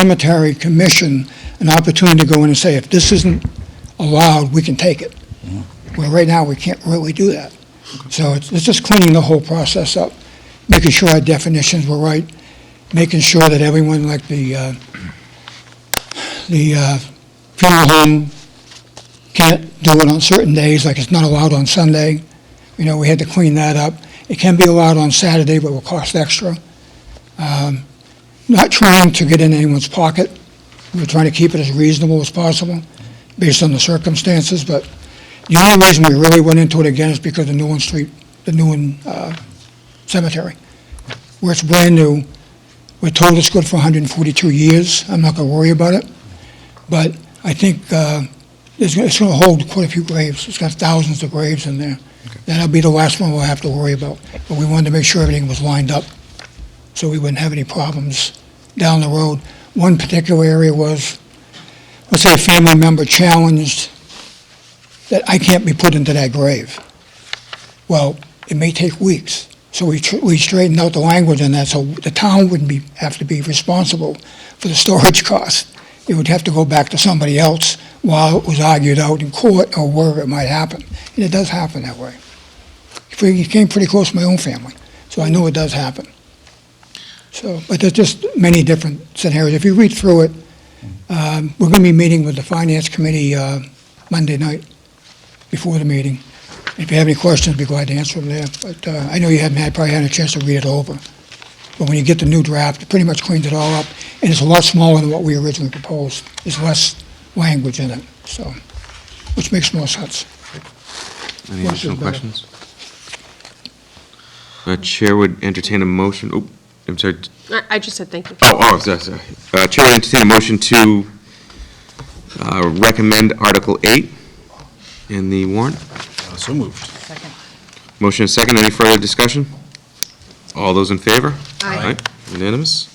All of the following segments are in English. cemetery commission an opportunity to go in and say, if this isn't allowed, we can take it. Well, right now, we can't really do that. So it's it's just cleaning the whole process up, making sure our definitions were right, making sure that everyone, like the, uh, the uh, funeral home can't do it on certain days, like it's not allowed on Sunday. You know, we had to clean that up. It can be allowed on Saturday, but will cost extra. Um, Not trying to get in anyone's pocket. We're trying to keep it as reasonable as possible based on the circumstances, but the only reason we really went into it again is because of Newland Street, the Newland uh, Cemetery, where it's brand new. We're told it's good for 142 years. I'm not going to worry about it. But I think uh, it's going to hold quite a few graves. It's got thousands of graves in there. That'll be the last one we'll have to worry about. But we wanted to make sure everything was lined up so we wouldn't have any problems down the road. One particular area was, let's say a family member challenged that I can't be put into that grave. Well, it may take weeks. So we, tr- we straightened out the language in that, so the town wouldn't be, have to be responsible for the storage cost. It would have to go back to somebody else while it was argued out in court or wherever it might happen. And it does happen that way. Pretty- It came pretty close to my own family, so I know it does happen. So, but there's just many different scenarios. If you read through it, um, we're going to be meeting with the finance committee uh, Monday night before the meeting. If you have any questions, I'd be glad to answer them there. But uh, I know you haven't had, probably had a chance to read it over. But when you get the new draft, it pretty much cleans it all up, and it's a lot smaller than what we originally proposed. There's less language in it, so, which makes more sense. Any Yes, additional it's better. questions? Uh, Chair would entertain a motion, oh, I'm sorry, I I just said thank you. oh, oh, sorry, sorry. Uh, Chair would entertain a motion to uh, recommend Article 8 in the warrant. So moved. Motion and second, any further discussion? All those in favor? Aye. Aye, Unanimous?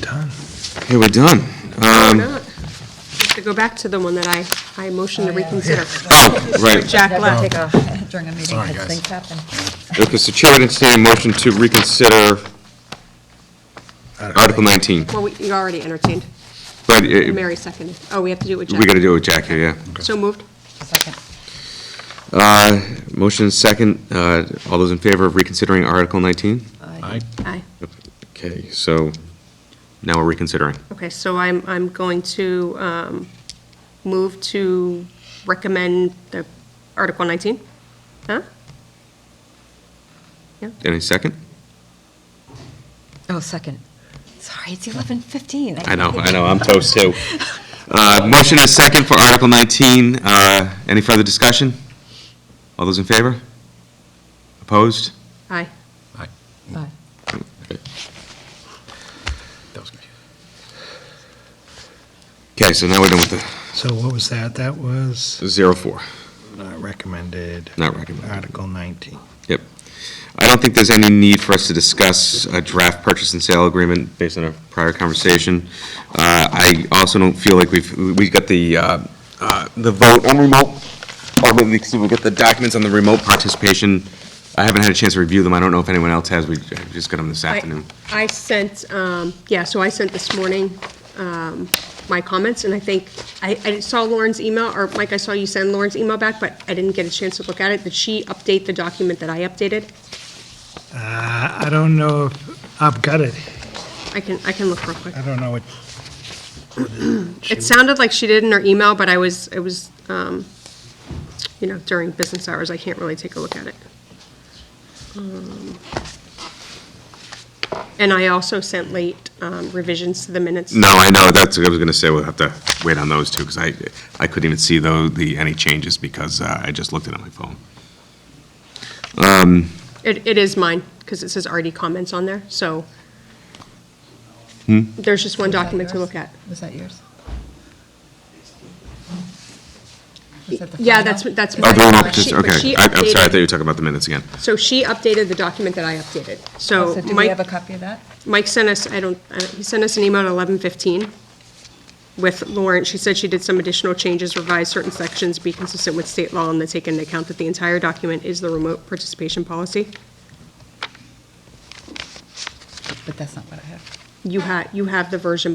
Done. Okay, we're done. Um, Not. Just to go back to the one that I, I motioned to reconsider. Oh, right. Jack left. Take off during a meeting, Sorry, because guys. things happen. Okay, so Chair would entertain a motion to reconsider Article 19. Well, we- you already entertained. But uh, we Mary seconded. Oh, we have to do it with Jack. got to do it with Jack here, yeah. So moved. Second. Uh, Motion is second. Uh, All those in favor of reconsidering Article 19? Aye. Aye. Okay, so now we're reconsidering. Okay, so I'm, I'm going to um, move to recommend the Article 19. Huh? Any second? Oh, second. Sorry, it's 11:15. I know, I know, I'm toast too. Uh, Motion is second for Article 19. Uh, Any further discussion? All those in favor? Opposed? Aye. Aye. That was confusing. Okay, so now we're done with So what was that? That was the 04, Uh, not recommended, not recommended. Article 19. Yep. I don't think there's any need for us to discuss a draft purchase and sale agreement based on our prior conversation. Uh, I also don't feel like we've, we got the, uh, uh, the vote on remote, or we we got the documents on the remote participation. I haven't had a chance to review them. I don't know if anyone else has. We I just got them this I- afternoon. I sent, um, yeah, so I sent this morning um, my comments, and I think, I I saw Lauren's email, or Mike, I saw you send Lauren's email back, but I didn't get a chance to look at it. Did she update the document that I updated? Uh, I don't know, if I've got it, I can, I can look real quick. I don't know what, It sounded like she did in her email, but I was, it was, um, you know, during business hours, I can't really take a look at it. Um, And I also sent late um, revisions to the minutes. No, I know, that's, I was going to say, we'll have to wait on those two, because I, I couldn't even see though, the, any changes, because uh, I just looked at it on my phone. It, it is mine, because it says RD comments on there, so Hmm? there's just one Was that document to yours? look at. Was that yours? Was that the Yeah, final? that's, what- that's. Oh, mine. the remote She- participation, but she okay. I- I'm sorry, I updated- thought you were talking about the minutes again. So she updated the document that I updated. So So do we Mike, have a copy of that? Mike sent us, I don't, I don't- he sent us an email at 11:15 with Lauren. She said she did some additional changes, revised certain sections, be consistent with state law, and then take into account that the entire document is the remote participation policy. But that's not what I have. you ha, you have the version